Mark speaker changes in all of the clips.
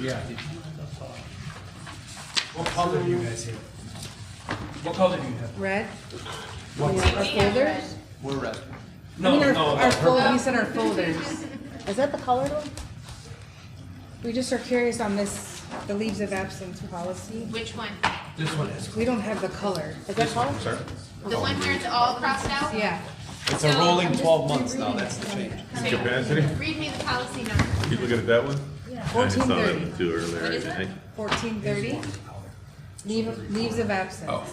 Speaker 1: Yeah.
Speaker 2: What color do you guys have? What color do you have?
Speaker 3: Red?
Speaker 2: What?
Speaker 3: Yeah, Our folders?
Speaker 2: We're red.
Speaker 3: I
Speaker 2: No,
Speaker 3: mean,
Speaker 2: no,
Speaker 3: our,
Speaker 2: no,
Speaker 3: our
Speaker 2: purple.
Speaker 3: fold, we said our folders.
Speaker 4: Is that the colored one?
Speaker 3: We just are curious on this, the leaves of absence policy.
Speaker 5: Which one?
Speaker 2: This one is.
Speaker 3: We don't have the color.
Speaker 4: Is that colored?
Speaker 5: The one where it's all crossed out?
Speaker 3: Yeah.
Speaker 2: It's a rolling twelve months now, that's the change.
Speaker 5: Okay.
Speaker 6: Capacity?
Speaker 5: Read me the policy number.
Speaker 6: You look at that one? I saw that
Speaker 3: 1430.
Speaker 6: one too earlier,
Speaker 5: What
Speaker 6: I
Speaker 5: is it?
Speaker 6: think.
Speaker 3: Fourteen thirty? Leave, of- leaves of absence.
Speaker 6: Oh.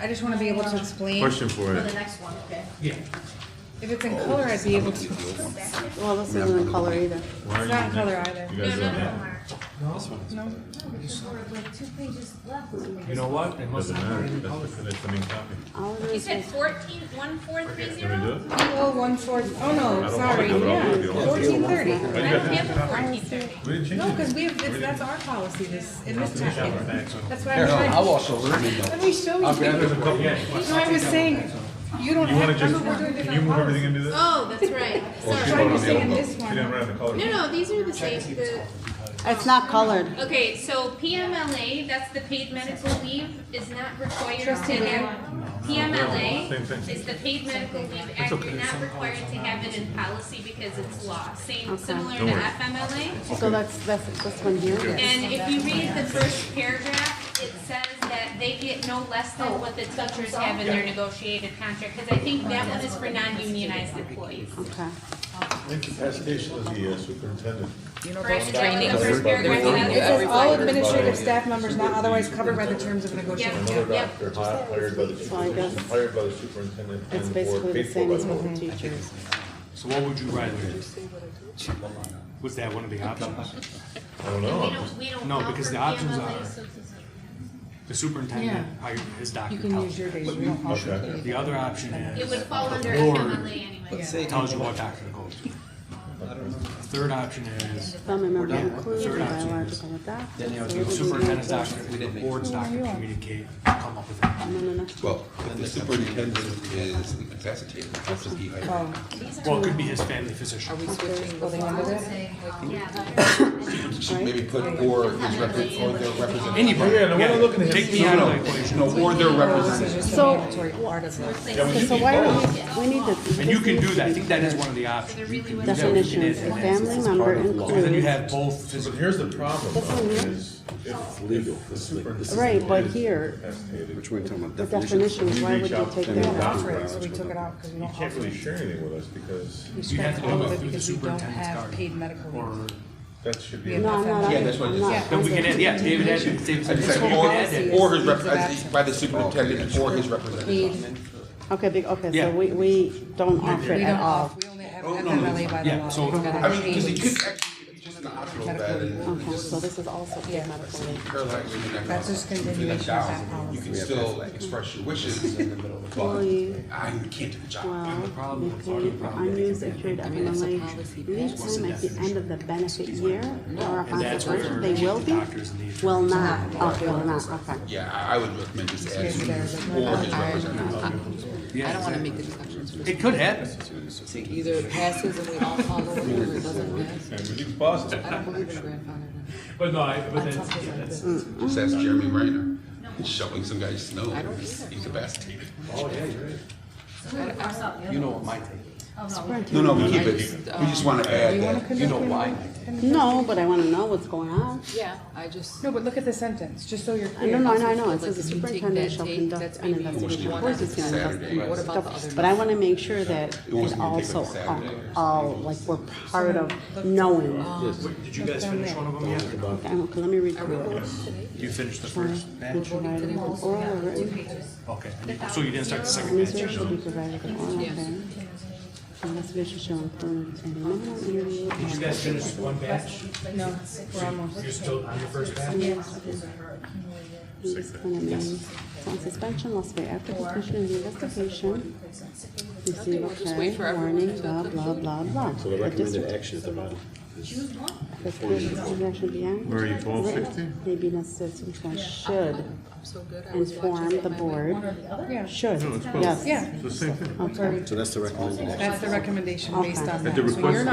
Speaker 3: I just wanna be able to explain.
Speaker 6: Question for you.
Speaker 5: next one, okay.
Speaker 3: If it's in color, I'd be able to, it's
Speaker 4: Well, this isn't in color either.
Speaker 6: Why are you
Speaker 3: not in color
Speaker 6: next?
Speaker 3: either.
Speaker 6: You
Speaker 5: No,
Speaker 6: guys
Speaker 5: no,
Speaker 6: don't
Speaker 5: no,
Speaker 6: have,
Speaker 5: Mark.
Speaker 3: No?
Speaker 2: You know what? It must
Speaker 6: doesn't
Speaker 2: not
Speaker 6: matter,
Speaker 2: be any
Speaker 6: that's
Speaker 2: color.
Speaker 6: the finished, I mean, copy.
Speaker 4: All it
Speaker 5: You
Speaker 4: is
Speaker 5: said
Speaker 4: is,
Speaker 5: fourteen, one, four, three,
Speaker 6: Can we do
Speaker 5: zero?
Speaker 6: it?
Speaker 3: Oh, one four, oh
Speaker 6: I
Speaker 3: no,
Speaker 6: don't
Speaker 3: sorry,
Speaker 6: wanna do it all if you
Speaker 3: yeah,
Speaker 6: don't want to.
Speaker 3: fourteen thirty.
Speaker 5: I don't have a fourteen thirty.
Speaker 6: We didn't change it.
Speaker 3: No, because we have, it's- that's our policy this, in this packet. That's why I'm
Speaker 7: Here, I'll
Speaker 3: trying,
Speaker 7: wash over it.
Speaker 3: let me show
Speaker 7: I'll
Speaker 3: you.
Speaker 7: grab it.
Speaker 3: You know, I was saying, you don't
Speaker 6: You wanna
Speaker 3: have,
Speaker 6: just,
Speaker 3: remember we're doing
Speaker 6: can you
Speaker 3: different
Speaker 6: move everything
Speaker 3: policies.
Speaker 6: into this?
Speaker 5: Oh, that's right,
Speaker 3: So
Speaker 5: sorry.
Speaker 3: I'm just saying this
Speaker 6: You didn't
Speaker 3: one,
Speaker 6: run out of color.
Speaker 5: No, no, these are the same, the,
Speaker 4: it's not colored.
Speaker 5: okay, so PMLA, that's the paid medical leave, is not required to
Speaker 3: Trustee
Speaker 5: have.
Speaker 6: Same
Speaker 5: PMLA
Speaker 6: thing.
Speaker 5: is the paid medical leave act, you're not required to have it in policy because it's law, same,
Speaker 4: Okay.
Speaker 5: similar to
Speaker 6: Don't worry.
Speaker 5: FMLA.
Speaker 4: So that's, that's this one here.
Speaker 5: And if you read the first paragraph, it says that they get no less than what the teachers have in their negotiated contract, because I think that one is for non-unionized employees.
Speaker 4: Okay.
Speaker 6: Incapacitation of the uh, superintendent.
Speaker 5: Correct, that was the first paragraph. and
Speaker 3: it
Speaker 5: then
Speaker 3: says all administrative staff members not otherwise covered by the terms of negotiation.
Speaker 5: Yep, yep.
Speaker 6: They're hi- hired by the superintendent,
Speaker 4: guess
Speaker 6: hired by the superintendent
Speaker 4: It's
Speaker 6: and the
Speaker 4: basically the
Speaker 6: board, paid for
Speaker 4: same
Speaker 6: by
Speaker 4: as
Speaker 6: the
Speaker 4: with
Speaker 6: board.
Speaker 4: the teachers.
Speaker 2: So what would you rather? Was that one of the options?
Speaker 6: I don't know.
Speaker 5: We
Speaker 6: I'm just-
Speaker 5: don't, we don't.
Speaker 2: Oh. No, because the
Speaker 5: offer
Speaker 2: options
Speaker 5: PMLA,
Speaker 2: are-
Speaker 5: so it doesn't-
Speaker 2: The superintendent hired his doctor.
Speaker 3: You can use your days, we don't have to.
Speaker 6: Okay.
Speaker 2: The other option
Speaker 5: It
Speaker 2: is
Speaker 5: would fall under
Speaker 2: The board-
Speaker 5: FMLA anyway.
Speaker 7: Say,
Speaker 2: tells you what doctor to go to. The third option is
Speaker 4: Some are not included,
Speaker 2: Third option
Speaker 4: biological adopted.
Speaker 7: Then you have
Speaker 4: so
Speaker 7: to
Speaker 4: it would be
Speaker 2: superintendent's
Speaker 4: no-
Speaker 2: doctor, the board's doctor communicate, come up with it.
Speaker 4: No, no, no.
Speaker 7: Well, if the superintendent is incapacitated, I'll just be hired.
Speaker 3: Oh,
Speaker 2: Well, it could be his family physician.
Speaker 3: holding under this?
Speaker 7: She Maybe put or his represent, or their representative.
Speaker 2: Anybody.
Speaker 6: Yeah, no, we're not looking at
Speaker 2: Take
Speaker 6: him.
Speaker 2: me out of the equation.
Speaker 7: No, or their
Speaker 3: This is
Speaker 7: representative.
Speaker 3: just a
Speaker 4: So-
Speaker 3: mandatory part of it.
Speaker 6: Yeah, we
Speaker 4: So-
Speaker 6: should
Speaker 4: So
Speaker 6: be
Speaker 4: why
Speaker 6: both.
Speaker 4: don't we, we need the.
Speaker 2: And you can do that, I think that is one of the options.
Speaker 4: Definitions, a family member
Speaker 2: And then you
Speaker 4: includes,
Speaker 2: have both
Speaker 6: But
Speaker 2: physical.
Speaker 6: here's the problem
Speaker 4: This one
Speaker 6: though,
Speaker 4: here?
Speaker 6: is if legal, the superintendent.
Speaker 4: right, but here,
Speaker 6: incapacitated,
Speaker 8: Which we're talking about
Speaker 4: the
Speaker 8: definitions.
Speaker 4: definitions, why would you take
Speaker 8: And
Speaker 4: that out?
Speaker 3: Right, so we took it out because we don't
Speaker 6: Can't
Speaker 3: offer.
Speaker 6: really share anything with us because
Speaker 3: We
Speaker 2: You have
Speaker 3: scrapped
Speaker 2: to
Speaker 3: all
Speaker 2: go
Speaker 3: of
Speaker 2: through
Speaker 3: it
Speaker 2: the
Speaker 3: because we don't
Speaker 2: superintendent's
Speaker 3: have
Speaker 2: card.
Speaker 3: paid medical leave.
Speaker 2: Or,
Speaker 6: that should be.
Speaker 3: Yeah.
Speaker 4: No, I'm not,
Speaker 7: Yeah, that's what it
Speaker 4: I'm
Speaker 7: is.
Speaker 4: not.
Speaker 2: then we can add, yeah, David had, David
Speaker 7: I
Speaker 2: said,
Speaker 7: just
Speaker 2: you
Speaker 7: said,
Speaker 2: can add that.
Speaker 3: Policy.
Speaker 7: or, or his representative, by the superintendent, or his representative.
Speaker 3: Paid,
Speaker 4: Okay, be- okay,
Speaker 2: Yeah.
Speaker 4: so we, we don't offer it
Speaker 3: we don't
Speaker 4: at all.
Speaker 3: offer, we only have
Speaker 7: Oh, no, no,
Speaker 3: FMLA by the
Speaker 2: yeah,
Speaker 3: law.
Speaker 2: so-
Speaker 3: We've got
Speaker 7: I mean, because he
Speaker 3: paid.
Speaker 7: could actually, if he's just in the hospital bed and
Speaker 4: Okay,
Speaker 7: just
Speaker 4: so this is also paid medical leave.
Speaker 7: paralyzed. and that
Speaker 3: That's just
Speaker 7: goes up
Speaker 3: continuation of
Speaker 7: $50,000,
Speaker 3: that policy.
Speaker 7: You can still express your wishes, but
Speaker 4: Employee,
Speaker 7: I Ah, can't do the job.
Speaker 4: well, be paid for unused accrued FMLA leave time at the end of the benefit year or
Speaker 2: And
Speaker 4: upon
Speaker 2: that's where
Speaker 4: separation, they will be?
Speaker 2: doctors need.
Speaker 4: Will not, okay, will not, okay.
Speaker 7: Yeah, I I would recommend just add
Speaker 3: Maybe there's a-
Speaker 7: or his representative.
Speaker 2: I don't wanna make
Speaker 9: the discussions.
Speaker 2: It could happen.
Speaker 9: It either passes and we all follow it, or it doesn't pass.
Speaker 6: And we can pause it.
Speaker 9: I don't believe in grandfathering.
Speaker 2: But no, I, but
Speaker 9: That's something like this.
Speaker 7: Just ask Jeremy Reiner, He's shoveling some guy's snow, he's incapacitated.
Speaker 1: You know what my take is.
Speaker 7: No, no, we keep it, we just wanna add that.
Speaker 1: You know why.
Speaker 4: No, but I wanna know what's going on.
Speaker 9: Yeah, I just.
Speaker 3: No, but look at the sentence, just so you're
Speaker 4: I
Speaker 3: clear.
Speaker 4: don't know, I know, I know, it
Speaker 9: Like,
Speaker 4: says the
Speaker 9: if you take
Speaker 4: superintendent
Speaker 9: that
Speaker 4: shall
Speaker 9: take,
Speaker 4: conduct
Speaker 9: that's
Speaker 4: an
Speaker 9: maybe
Speaker 4: investigation. Of
Speaker 9: one
Speaker 4: course he's gonna
Speaker 7: Saturday.
Speaker 4: investigate
Speaker 9: What about the
Speaker 4: stuff,
Speaker 9: other
Speaker 4: but I wanna make sure that
Speaker 7: It wasn't
Speaker 4: it
Speaker 7: gonna take
Speaker 4: also,
Speaker 7: like Saturday or
Speaker 4: all, like, we're part of knowing.
Speaker 2: Wait, Did you guys finish one of them yet? or no?
Speaker 4: Okay, okay, let me read through it.
Speaker 2: You finished the first batch?
Speaker 4: Provided an oral or written
Speaker 2: Okay, so you didn't start the second batch?
Speaker 4: Administration should be provided an oral hearing. Investigation shall include a minimum interview
Speaker 2: Did you
Speaker 4: and
Speaker 2: guys finish one batch?
Speaker 3: No, we're almost.
Speaker 2: You're still on your first batch?
Speaker 4: disciplinary on suspension must be after completion of the investigation. Receive a
Speaker 9: wait for
Speaker 4: prior
Speaker 9: everyone
Speaker 4: warning,
Speaker 9: to
Speaker 4: blah, blah, blah, blah.
Speaker 8: So the
Speaker 4: The
Speaker 8: recommended
Speaker 4: district
Speaker 8: action is about
Speaker 4: The district action beyond.
Speaker 6: Where are you, twelve sixty?
Speaker 4: May be necessary, to inform- should
Speaker 9: I'm so good. I was watching
Speaker 4: inform the
Speaker 9: my-
Speaker 4: board,
Speaker 3: Yeah,
Speaker 4: should,
Speaker 6: No, it's both.
Speaker 4: yes.
Speaker 3: yeah,
Speaker 6: It's the same thing.
Speaker 4: Okay.
Speaker 8: So that's the recommended action.
Speaker 3: that's the recommendation based on
Speaker 4: Okay.
Speaker 3: that.
Speaker 6: the
Speaker 3: So
Speaker 6: request
Speaker 3: you're
Speaker 6: of